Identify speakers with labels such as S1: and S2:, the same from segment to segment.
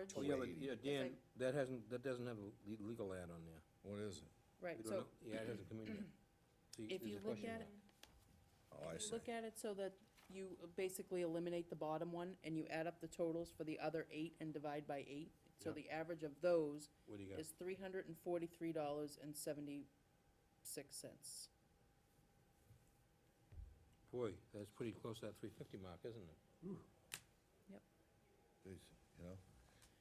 S1: Oh,
S2: Oh,
S1: yeah,
S2: yeah,
S1: but,
S2: eighty.
S1: yeah, Dan, that hasn't, that doesn't have a le- legal ad on there.
S2: What is it?
S3: Right,
S1: We don't
S3: so
S1: know- Yeah, it hasn't come in yet. See,
S3: if
S1: there's
S3: you
S1: a
S3: look
S1: question
S3: at,
S1: mark.
S2: Oh, I
S3: it-
S2: see.
S3: look at it so that you basically eliminate the bottom one and you add up the totals for the other eight and divide by eight. So
S1: Yeah.
S3: the average of those
S1: What do you got?
S3: is three hundred and forty-three dollars and seventy-six cents.
S1: Boy, that's pretty close to that three fifty mark, isn't it?
S2: Jeez, You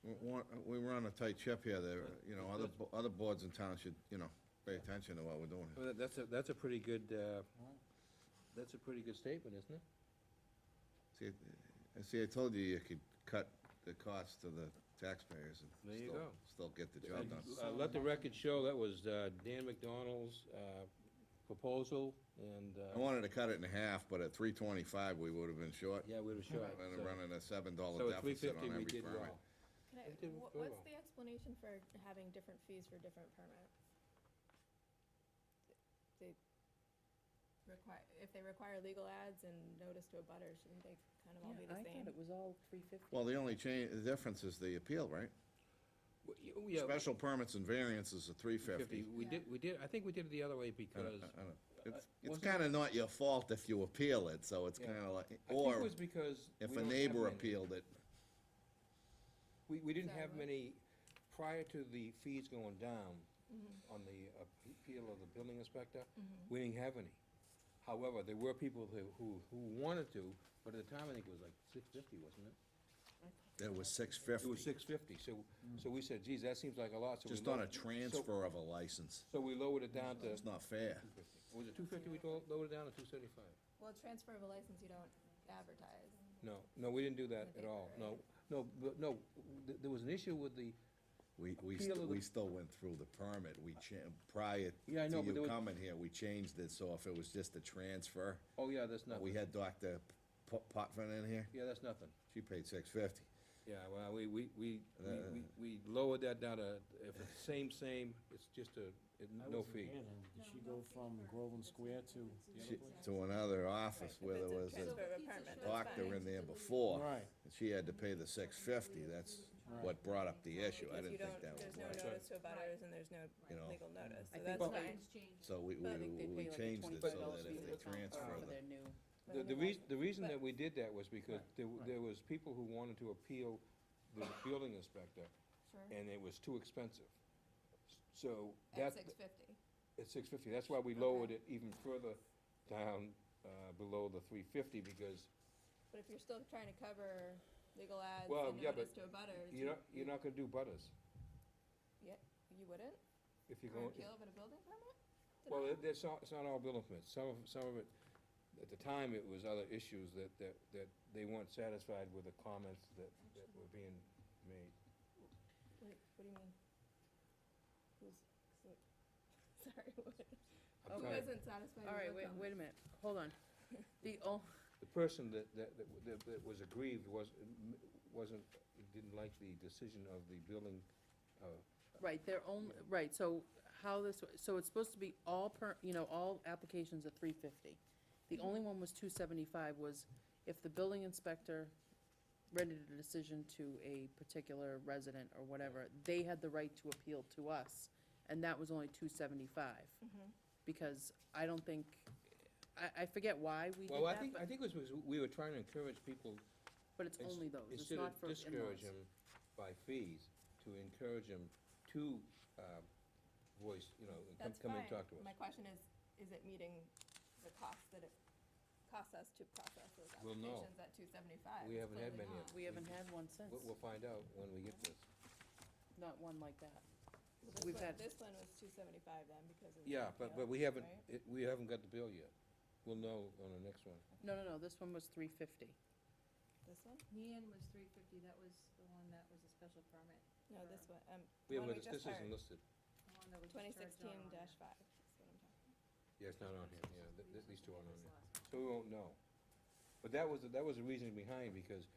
S2: know, we want- we were on a tight ship here, there, you know, other, bo- other boards in town should, you know, pay attention to what we're doing here.
S1: Well, that- that's a, that's a pretty good, uh, that's a pretty good statement, isn't it?
S2: See, I see, I told you you could cut the cost to the taxpayers and
S1: There you
S2: still-
S1: go.
S2: Still get the job done.
S1: Uh, Let the record show, that was uh, Dan McDonald's uh, proposal, and, uh,
S2: I wanted to cut it in half, but at three twenty-five, we would've been short.
S1: yeah, we were short.
S2: And
S1: so-
S2: running a seven
S1: So
S2: dollar
S1: at three
S2: deficit on
S1: fifty, we
S2: every
S1: did
S2: permit.
S1: well.
S4: Can I,
S1: It did
S4: wha-
S1: very
S4: what's
S1: well.
S4: the explanation for having different fees for different permits? They require, if they require legal ads and notice to a butter, shouldn't they kind of all be
S3: Yeah,
S4: the
S3: I
S4: same?
S3: thought it was all three fifty.
S2: Well, the only change, the difference is the appeal, right?
S1: W- y- oh, yeah,
S2: Special permits and variances are three fifty.
S1: We did, we did, I think we did it the other way because,
S2: It's, it's
S1: wasn't-
S2: kinda not your fault if you appeal it, so it's
S1: Yeah.
S2: kinda like,
S1: I think it
S2: or
S1: was because.
S2: if
S1: we
S2: a
S1: don't have
S2: neighbor
S1: many.
S2: appealed it.
S1: We, we didn't
S4: Sorry,
S1: have
S4: what?
S1: many, prior to the fees going down on the uh, appeal of the building inspector, we didn't have any. However, there were people who, who, who wanted to, but at the time, I think it was like six fifty, wasn't it?
S2: It was six
S1: It
S2: fifty,
S1: was six fifty, so, so we said, geez, that seems like a lot, so we.
S2: just on a
S1: lowered- so-
S2: transfer of a license.
S1: So we lowered it down to,
S2: It's not fair.
S1: was it two fifty we lo- lowered it down to two seventy-five?
S4: Well, transfer of a license, you don't advertise.
S1: No, no, we didn't do that at all, no, no, but, no, th- there was an issue with the,
S2: We, we,
S1: Appeal
S2: st-
S1: of
S2: we
S1: the-
S2: still went through the permit, we cha, prior
S1: Yeah, I
S2: to
S1: know, but there
S2: you
S1: was-
S2: coming here, we changed it, so if it was just a transfer,
S1: oh, yeah, that's nothing.
S2: we had Dr. P- Potvin in here,
S1: Yeah, that's nothing.
S2: she paid six fifty.
S1: Yeah, well, we, we, we, we- we, we lowered that down to, if it's same, same, it's just a, it-
S5: I
S1: no
S5: wasn't
S1: fee.
S5: here then. Did she go from Groveland Square to the other place?
S2: To another office where there was
S4: Transfer
S2: a
S4: of a permit, that's
S2: doctor
S4: fine.
S2: in there before,
S5: Right.
S2: and she had to pay the six fifty, that's
S5: Right.
S2: what brought up the issue, I
S4: Because you
S2: didn't think
S4: don't,
S2: that was
S4: there's no
S2: right.
S4: notice to a butters and there's no
S2: You know.
S4: legal notice,
S3: I
S4: so
S3: think
S4: that's
S3: Well-
S4: fine.
S2: So we,
S3: I think
S2: we,
S3: they
S2: we
S3: pay like a
S2: changed it
S3: twenty-five
S2: so
S3: dollars
S2: that
S3: fee to
S2: if they
S3: the town uh,
S2: transfer
S3: for
S2: the
S3: their new.
S1: The, the reason, the reason that we did that was because there, w- there was people who wanted to appeal the building inspector,
S4: Sure.
S1: and it was too expensive. So
S4: At
S1: that,
S4: six fifty.
S1: at six fifty, that's why we lowered it even further down, uh, below the three fifty, because
S4: But if you're still trying to cover legal ads
S1: Well,
S4: and
S1: yeah, but
S4: notice to a butters,
S1: you're
S4: you
S1: not, you're not gonna do butters.
S4: you wouldn't?
S1: If you're
S4: For
S1: going,
S4: appeal of a building permit? Did
S1: Well,
S4: I-
S1: it- it's not, it's not all building permits. Some of, some of it, at the time, it was other issues that, that, that they weren't satisfied with the comments that, that were being made.
S4: Wait, what do you mean? Who's, so- sorry, what?
S1: I'm
S3: Okay.
S4: Who
S1: sorry.
S4: isn't satisfied
S3: All right,
S4: with
S3: wait,
S4: what
S3: wait a minute,
S4: comments?
S3: hold on. The, oh,
S1: The person that, that, that- that, that was aggrieved was, wasn't, didn't like the decision of the building, uh,
S3: right, they're only, right, so how this, so it's supposed to be all per, you know, all applications are three fifty.
S1: Mm-hmm.
S3: The only one was two seventy-five was if the building inspector rendered a decision to a particular resident or whatever, they had the right to appeal to us, and that was only two seventy-five.
S1: Mm-hmm.
S3: Because I don't think, I, I forget why we did
S1: well, I
S3: that,
S1: think, I
S3: but,
S1: think it was, we were trying to encourage people,
S3: but it's
S1: ins-
S3: only those, it's
S1: instead of
S3: not for in-laws.
S1: discourage them by fees, to encourage them to, uh, voice, you know, and come,
S4: That's
S1: come and
S4: fine.
S1: talk to us.
S4: My question is, is it meeting the cost that it costs us to process those
S1: We'll know.
S4: applications at two seventy-five?
S1: We haven't had many of
S3: We haven't had one since,
S1: We'll, we'll find out when we get this.
S3: not one like that.
S4: This
S3: We've
S4: one,
S3: had-
S4: this one was two seventy-five then because of. the
S1: Yeah, but,
S4: appeal,
S1: but we haven't,
S4: right?
S1: it, we haven't got the bill yet. We'll know on the next one.
S3: No, no, no, this one was three fifty.
S4: This one?
S6: Nian was three fifty, that was the one that was a special permit,
S4: No, this one, um,
S1: We
S4: the
S1: haven't got this,
S4: one we
S1: this
S4: just
S1: isn't
S4: hired,
S1: listed.
S6: the one that was
S4: twenty
S6: discharged not
S4: sixteen
S6: on there.
S4: dash five, is what I'm talking
S1: Yeah, it's not on here, yeah, th- th- these two aren't on
S6: This
S1: here.
S6: last
S1: So we won't know. But that was, that was the reasoning behind, because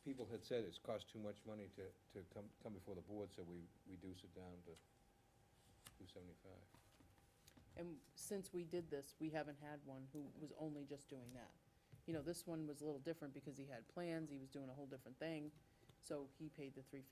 S1: people had said it's cost too much money to, to come, come before the board, so we reduced it down to two seventy-five.
S3: And since we did this, we haven't had one who was only just doing that. You know, this one was a little different because he had plans, he was doing a whole different thing. So he paid the three fifty.